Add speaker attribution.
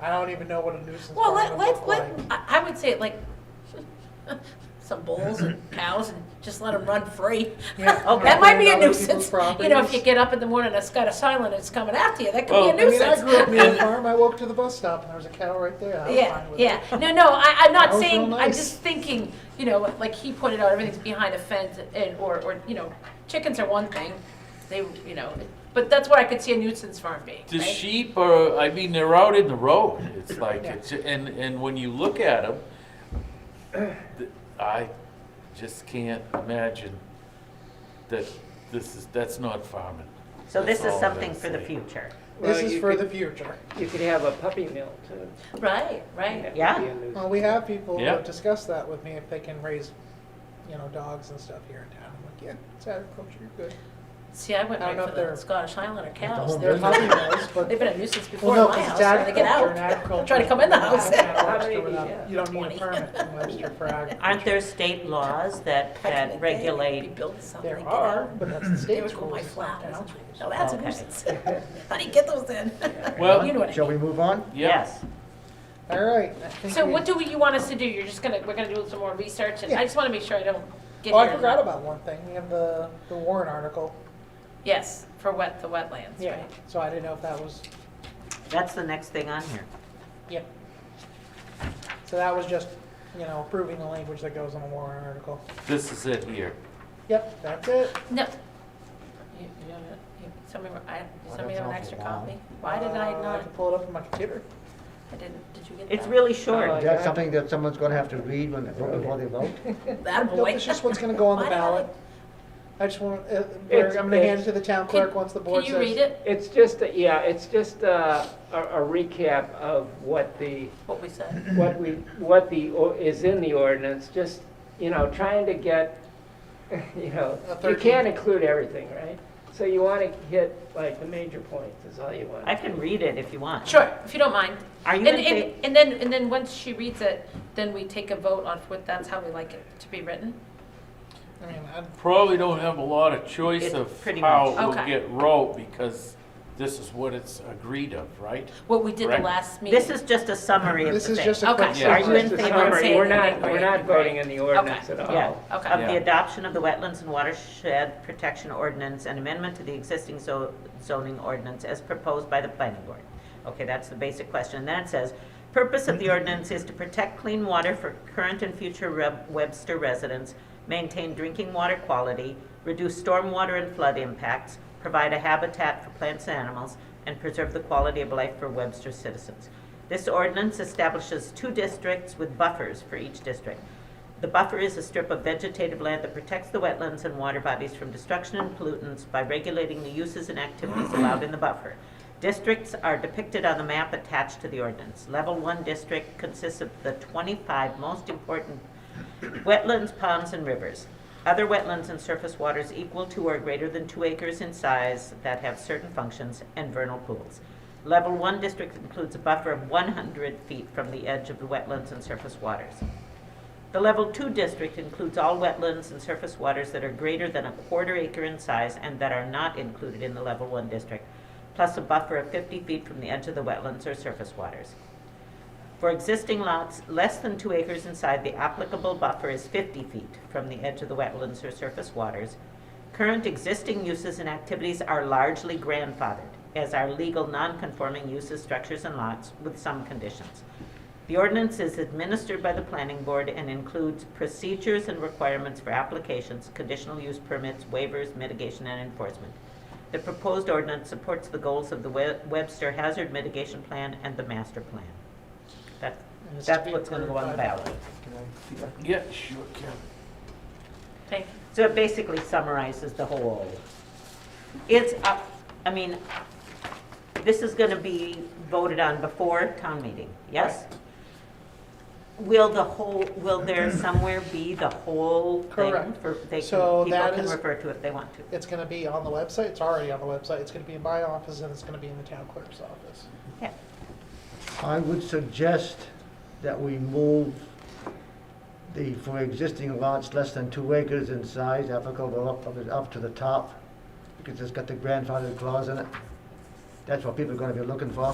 Speaker 1: I don't even know what a nuisance
Speaker 2: Well,
Speaker 1: barn
Speaker 2: let,
Speaker 1: would look
Speaker 2: let, let,
Speaker 1: like.
Speaker 2: I I would say like some bulls and cows and just let them run free.
Speaker 1: Yeah,
Speaker 2: Oh, That might be a
Speaker 1: on other people's
Speaker 2: nuisance. You know, if you
Speaker 1: properties.
Speaker 2: get up in the morning, and it's got a sign and it's coming after you, that
Speaker 3: Well,
Speaker 2: could
Speaker 1: I
Speaker 2: be
Speaker 3: I
Speaker 2: a
Speaker 1: mean, I
Speaker 2: nuisance.
Speaker 1: grew up near a farm, I walked to the bus stop and there was a cow right there, I was
Speaker 2: Yeah,
Speaker 1: fine with it.
Speaker 2: yeah. No, no, I,
Speaker 1: That
Speaker 2: I'm not
Speaker 1: was
Speaker 2: saying,
Speaker 1: real
Speaker 2: I'm
Speaker 1: nice.
Speaker 2: just thinking, you know, like he pointed out, everything's behind a fence and, or, or, you know, chickens are one thing. They, you know, but that's where I could see a nuisance farm being,
Speaker 3: The
Speaker 2: right?
Speaker 3: sheep are, I mean, they're out in the road. It's like,
Speaker 1: Yeah.
Speaker 3: it's, and, and when you look at them, I just can't imagine that this is, that's not farming.
Speaker 4: So this
Speaker 3: That's
Speaker 4: is
Speaker 3: all I'm
Speaker 4: something
Speaker 3: gonna
Speaker 4: for the
Speaker 3: say.
Speaker 4: future.
Speaker 5: Well,
Speaker 1: This is
Speaker 5: you
Speaker 1: for the
Speaker 5: could-
Speaker 1: future.
Speaker 5: You could have a puppy mill too.
Speaker 2: Right, right.
Speaker 5: That would
Speaker 4: Yeah.
Speaker 5: be a nuisance.
Speaker 1: Well, we have people
Speaker 3: Yeah.
Speaker 1: that discuss that with me, if they can raise, you know, dogs and stuff here in town. I'm like, yeah, it's agriculture, you're good.
Speaker 2: See, I went
Speaker 1: I don't
Speaker 2: right
Speaker 1: know
Speaker 2: for
Speaker 1: if
Speaker 2: the
Speaker 1: they're-
Speaker 2: Scottish Highlander cows.
Speaker 6: home
Speaker 2: They're
Speaker 6: business.
Speaker 2: puppy
Speaker 1: Nice, but-
Speaker 2: They've been a nuisance before
Speaker 1: Well, no,
Speaker 2: in my
Speaker 1: 'cause
Speaker 2: house,
Speaker 1: it's
Speaker 2: and they get
Speaker 1: agriculture
Speaker 2: out.
Speaker 1: and agriculture.
Speaker 2: Try to come in the house.
Speaker 1: Agriculture
Speaker 5: Maybe,
Speaker 1: without-
Speaker 5: yeah.
Speaker 1: You don't need
Speaker 2: 20.
Speaker 1: a permit in Webster for agriculture.
Speaker 4: Aren't there state laws that,
Speaker 2: Back in the
Speaker 4: that
Speaker 2: day, they'd be
Speaker 4: regulate?
Speaker 2: building something
Speaker 1: There
Speaker 2: and get
Speaker 1: are,
Speaker 2: out.
Speaker 1: but that's the
Speaker 2: They
Speaker 1: state's
Speaker 2: would grow
Speaker 1: rules.
Speaker 2: my
Speaker 1: it's not
Speaker 2: flowers.
Speaker 1: town's
Speaker 2: Now
Speaker 1: rules.
Speaker 2: that's a
Speaker 4: Okay.
Speaker 2: nuisance. How do you get those in?
Speaker 3: Well-
Speaker 2: You know what I
Speaker 6: Shall we
Speaker 2: mean.
Speaker 6: move on?
Speaker 3: Yeah.
Speaker 4: Yes.
Speaker 1: All right. I think
Speaker 2: So
Speaker 1: we-
Speaker 2: what do we- you want us to do? You're just gonna, we're gonna do some more research, and
Speaker 1: Yeah.
Speaker 2: I just wanna make sure I don't get
Speaker 1: Oh, I
Speaker 2: here-
Speaker 1: forgot about one thing. We have the, the Warren article.
Speaker 2: Yes, for wet, the wetlands, right?
Speaker 1: So I didn't know if that was,
Speaker 4: That's the next thing on here.
Speaker 1: yeah. So that was just, you know, approving the language that goes on the Warren article.
Speaker 3: This is it here.
Speaker 1: Yep, that's it.
Speaker 2: No. You, you don't, you, somebody, I,
Speaker 6: Why
Speaker 2: somebody have
Speaker 6: that's
Speaker 2: an
Speaker 6: awful
Speaker 2: extra
Speaker 6: long.
Speaker 2: copy? Why did I
Speaker 1: Uh,
Speaker 2: not,
Speaker 1: can pull it up on my computer.
Speaker 2: I didn't, did you get that?
Speaker 4: It's really
Speaker 5: Oh,
Speaker 4: short.
Speaker 6: Is that something that someone's gonna have to read when, before they vote?
Speaker 2: That
Speaker 1: Nope,
Speaker 2: boy.
Speaker 1: It's just what's gonna go on the
Speaker 2: Oh, Why did I-
Speaker 1: ballot. I just want, uh,
Speaker 5: It's-
Speaker 1: I'm gonna hand it
Speaker 5: it's-
Speaker 1: to the town
Speaker 2: Can-
Speaker 1: clerk once the board says.
Speaker 2: Can you read it,
Speaker 5: It's just, a- yeah, it's just a, a a recap of what the,
Speaker 2: what we said?
Speaker 5: what we, what the, or- is in the ordinance, just, you know, trying to get, you know,
Speaker 1: A
Speaker 5: you
Speaker 1: thirteen.
Speaker 5: can't include everything, right? So you want to hit like the major points is all you want.
Speaker 4: I can read it if you want.
Speaker 2: Sure, if you don't mind.
Speaker 4: Are you
Speaker 2: And,
Speaker 4: in fa-
Speaker 2: and, and then, and then once she reads it, then we take a vote on what, that's how we like it to be written?
Speaker 1: I mean, I'd-
Speaker 3: Probably don't have a lot of choice
Speaker 4: It's
Speaker 3: of
Speaker 4: pretty
Speaker 3: how
Speaker 4: much-
Speaker 3: it will
Speaker 2: Okay.
Speaker 3: get wrote because this is what it's agreed of, right?
Speaker 2: What we did the
Speaker 3: Correct.
Speaker 2: last meeting?
Speaker 4: This is just a summary of the
Speaker 1: This
Speaker 4: thing.
Speaker 1: is just a quick.
Speaker 2: Okay.
Speaker 3: Yeah.
Speaker 4: Are you in
Speaker 5: Just a
Speaker 4: favor
Speaker 5: summary.
Speaker 4: of saying
Speaker 5: We're
Speaker 2: that?
Speaker 5: not, we're not voting in the ordinance at all.
Speaker 4: Yeah,
Speaker 2: Okay.
Speaker 4: of the
Speaker 3: Yeah.
Speaker 4: adoption of the Wetlands and Watershed Protection Ordinance and amendment to the existing zo- zoning ordinance as proposed by the planning board. Okay, that's the basic question. And then it says, purpose of the ordinance is to protect clean water for current and future Reb- Webster residents, maintain drinking water quality, reduce stormwater and flood impacts, provide a habitat for plants and animals, and preserve the quality of life for Webster citizens. This ordinance establishes two districts with buffers for each district. The buffer is a strip of vegetative land that protects the wetlands and water bodies from destruction and pollutants by regulating the uses and activities allowed in the buffer. Districts are depicted on the map attached to the ordinance. Level one district consists of the twenty-five most important wetlands, ponds, and rivers. Other wetlands and surface waters equal to or greater than two acres in size that have certain functions and vernal pools. Level one district includes a buffer of one hundred feet from the edge of the wetlands and surface waters. The Level 2 district includes all wetlands and surface waters that are greater than a quarter acre in size and that are not included in the Level 1 district, plus a buffer of 50 feet from the edge of the wetlands or surface waters. For existing lots less than 2 acres in size, the applicable buffer is 50 feet from the edge of the wetlands or surface waters. Current existing uses and activities are largely grandfathered, as are legal non-conforming uses, structures, and lots, with some conditions. The ordinance is administered by the planning board and includes procedures and requirements for applications, conditional use permits, waivers, mitigation, and enforcement. The proposed ordinance supports the goals of the We- Webster Hazard Mitigation Plan and the Master Plan. That,
Speaker 1: And it's to
Speaker 4: that's
Speaker 1: be
Speaker 4: what's gonna go on the
Speaker 1: approved by-
Speaker 4: ballot.
Speaker 3: Yeah, sure, Kevin.
Speaker 2: Thank
Speaker 4: So it basically summarizes the whole. It's, up- I mean, this is gonna be voted on before town meeting, yes? Will the whole, will there somewhere be the whole thing
Speaker 1: Correct.
Speaker 4: for, they can,
Speaker 1: So
Speaker 4: people
Speaker 1: that
Speaker 4: can
Speaker 1: is-
Speaker 4: refer to if they want to?
Speaker 1: It's gonna be on the website, it's already on the website, it's gonna be in my office, and it's gonna be in the town clerk's office.
Speaker 4: Yeah.
Speaker 6: I would suggest that we move the, for existing lots less than two acres in size, applicable up, up- up to the top, because it's got the grandfather clause in it. That's what people are gonna be looking for.